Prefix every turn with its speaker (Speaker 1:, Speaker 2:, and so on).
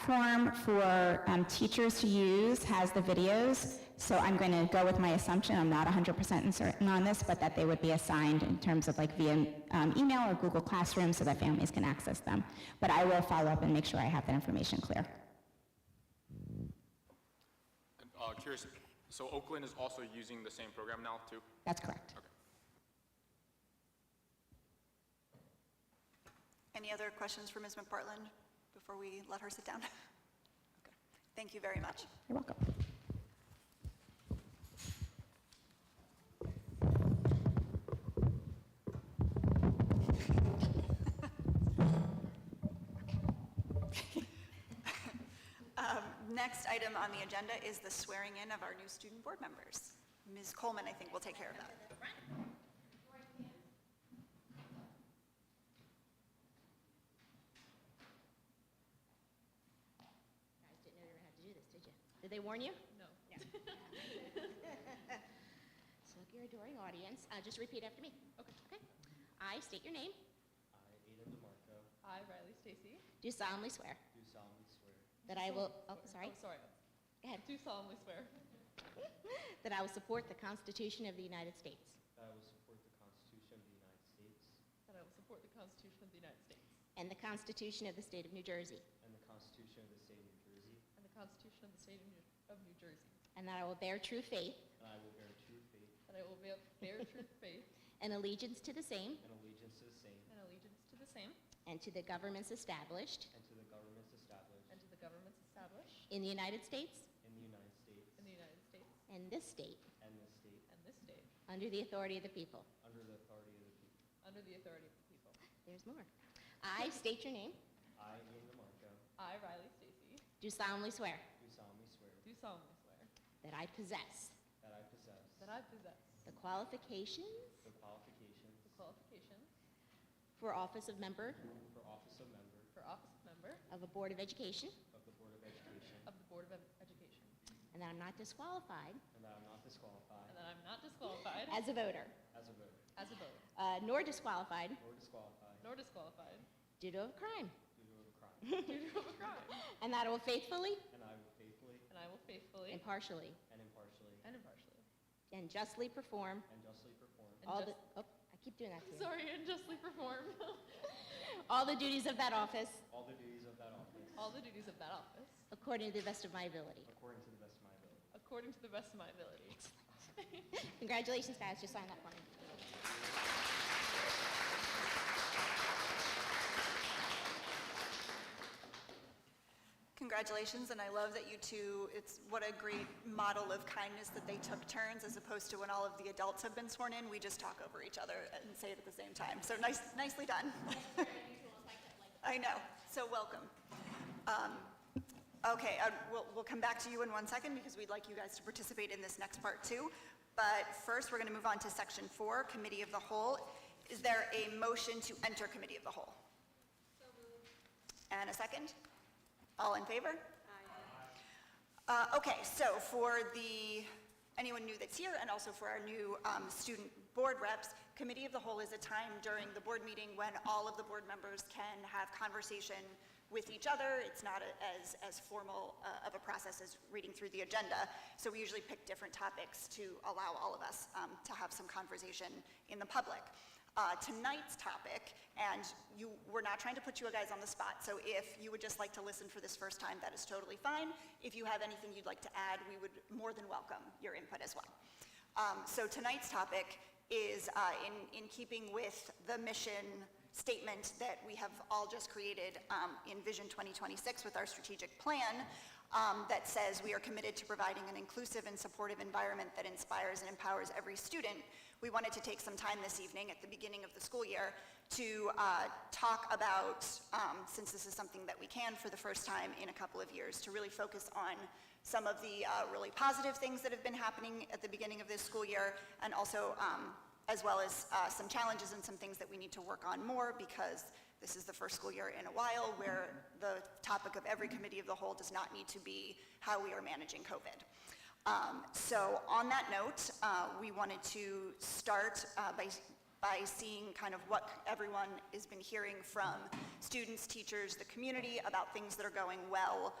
Speaker 1: platform for um, teachers to use has the videos, so I'm going to go with my assumption, I'm not 100% certain on this, but that they would be assigned in terms of like via um, email or Google Classroom so that families can access them. But I will follow up and make sure I have that information clear.
Speaker 2: Uh, curious, so Oakland is also using the same program now too?
Speaker 1: That's correct.
Speaker 3: Any other questions for Ms. McPartland before we let her sit down? Okay. Thank you very much.
Speaker 1: You're welcome.
Speaker 3: Um, Next item on the agenda is the swearing-in of our new student board members. Ms. Coleman, I think, will take care of that.
Speaker 4: guys didn't know how to do this, did you? Did they warn you? No. So look, your adoring audience, uh, just repeat after me. Okay. Okay? I state your name,
Speaker 5: I, Ada DeMarco,
Speaker 6: I, Riley Stacy,
Speaker 4: do solemnly swear
Speaker 5: do solemnly swear
Speaker 4: that I will, oh, sorry,
Speaker 6: oh, sorry,
Speaker 4: Go ahead.
Speaker 6: do solemnly swear
Speaker 4: that I will support the Constitution of the United States,
Speaker 5: that I will support the Constitution of the United States
Speaker 6: that I will support the Constitution of the United States
Speaker 4: and the Constitution of the State of New Jersey,
Speaker 5: and the Constitution of the State of New Jersey,
Speaker 6: and the Constitution of the State of New, of New Jersey,
Speaker 4: and that I will bear true faith
Speaker 5: and I will bear true faith
Speaker 6: that I will bear, bear true faith
Speaker 4: and allegiance to the same
Speaker 5: and allegiance to the same
Speaker 6: and allegiance to the same
Speaker 4: and to the governments established
Speaker 5: and to the governments established
Speaker 6: and to the governments established
Speaker 4: in the United States
Speaker 5: in the United States
Speaker 6: in the United States
Speaker 4: and this state
Speaker 5: and this state
Speaker 6: and this state
Speaker 4: under the authority of the people.
Speaker 5: under the authority of the people.
Speaker 6: under the authority of the people.
Speaker 4: There's more. I state your name,
Speaker 5: I, Ada DeMarco,
Speaker 6: I, Riley Stacy,
Speaker 4: do solemnly swear
Speaker 5: do solemnly swear
Speaker 6: do solemnly swear
Speaker 4: that I possess
Speaker 5: that I possess
Speaker 6: that I possess
Speaker 4: The qualifications
Speaker 5: the qualifications
Speaker 6: the qualifications
Speaker 4: for office of member
Speaker 5: for office of member
Speaker 6: for office of member
Speaker 4: of a Board of Education,
Speaker 5: of the Board of Education,
Speaker 6: of the Board of Ed- Education,
Speaker 4: and that I'm not disqualified
Speaker 5: and that I am not disqualified
Speaker 6: and that I'm not disqualified
Speaker 4: as a voter,
Speaker 5: as a voter
Speaker 6: as a voter,
Speaker 4: uh, nor disqualified
Speaker 5: or disqualified
Speaker 6: nor disqualified
Speaker 4: due to a crime,
Speaker 5: due to a crime,
Speaker 6: due to a crime,
Speaker 4: and that I will faithfully,
Speaker 5: and I will faithfully
Speaker 6: and I will faithfully
Speaker 4: impartially,
Speaker 5: and impartially
Speaker 6: and impartially
Speaker 4: and justly perform
Speaker 5: and justly perform
Speaker 6: And
Speaker 4: all the,
Speaker 6: just-
Speaker 4: oh, I keep doing that to you.
Speaker 6: Sorry, and justly perform
Speaker 4: All the duties of that office
Speaker 5: all the duties of that office
Speaker 6: all the duties of that office
Speaker 4: according to the best of my ability.
Speaker 5: according to the best of my ability.
Speaker 6: according to the best of my ability.
Speaker 4: Congratulations, guys, just sign that for me.
Speaker 3: Congratulations, and I love that you two, it's what a great model of kindness that they took turns as opposed to when all of the adults have been sworn in, we just talk over each other and say it at the same time. So nice, nicely done. I know, so welcome. Um, Okay, uh, we'll, we'll come back to you in one second because we'd like you guys to participate in this next part too. But first, we're going to move on to section four, committee of the whole. Is there a motion to enter committee of the whole? And a second? All in favor? Aye. Okay, so for the, anyone new that's here, and also for our new um, student board reps, Committee of the Whole is a time during the board meeting when all of the board members can have conversation with each other. It's not a- as, as formal uh, of a process as reading through the agenda. So we usually pick different topics to allow all of us um, to have some conversation in the public uh, tonight's topic, and you, we're not trying to put you guys on the spot, so if you would just like to listen for this first time, that is totally fine. If you have anything you'd like to add, we would more than welcome your input as well. Um, So tonight's topic is uh, in, in keeping with the mission statement that we have all just created um, in Vision 2026 with our strategic plan um, that says we are committed to providing an inclusive and supportive environment that inspires and empowers every student. We wanted to take some time this evening at the beginning of the school year to uh, talk about, um, since this is something that we can for the first time in a couple of years, to really focus on some of the uh, really positive things that have been happening at the beginning of this school year and also um, as well as uh, some challenges and some things that we need to work on more because this is the first school year in a while where the topic of every committee of the whole does not need to be how we are managing COVID. Um, So on that note, uh, we wanted to start uh, by by seeing kind of what everyone has been hearing from students, teachers, the community about things that are going well